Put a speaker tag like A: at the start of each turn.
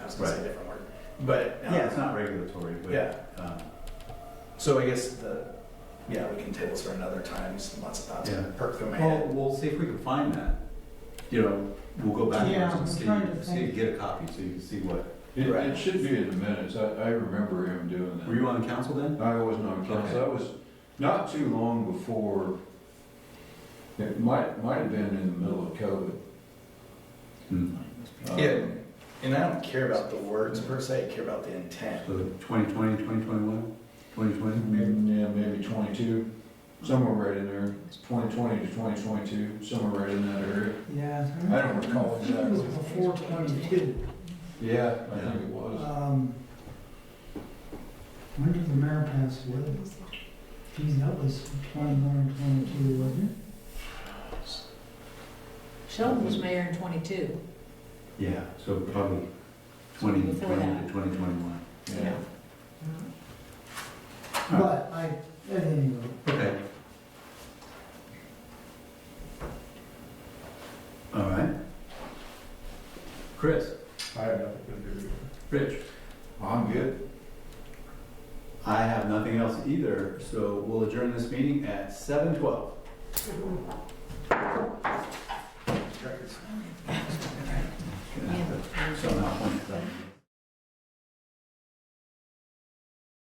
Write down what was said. A: it's a
B: Right.
A: different word. But, um,
B: Yeah, it's not regulatory,
A: Yeah.
B: but, um,
A: so I guess the, yeah, we can table this for another time, Just lots of thoughts
B: Yeah.
A: perk through my
B: well,
A: head.
B: we'll see if we can find that. You know, we'll go backwards
C: Yeah, I'm
B: and see,
C: trying to
B: see,
C: think.
B: get a copy so you can see what,
D: It,
A: Right.
D: it should be in the minutes, I, I remember him doing that.
B: were you on the council then?
D: I wasn't on
B: Okay.
D: council, I was not too long before, it might, might have been in the middle of COVID.
B: Hmm.
D: Um,
A: Yeah. And I don't care about the words per se, I care about the intent.
B: So 2020, 2021, 2020?
D: Maybe, yeah, maybe twenty-two, somewhere right in there, twenty twenty to twenty twenty-two, somewhere right in that area.
C: Yeah.
D: I don't recall
C: I think It was
D: exactly.
C: before twenty-two.
D: Yeah, I think it was.
C: Um, When did the mayor pass away? Geez, that was twenty-one or twenty-two, wasn't
E: Sheldon was mayor in twenty-two.
B: Yeah, so probably 2020
E: Before that.
B: to 2021.
D: Yeah.
C: it? But I, at any rate,
B: Okay. All right. Chris?
A: I have nothing to do.
B: Rich?
D: I'm good.
B: I have nothing else either, so we'll adjourn this meeting at 7:12.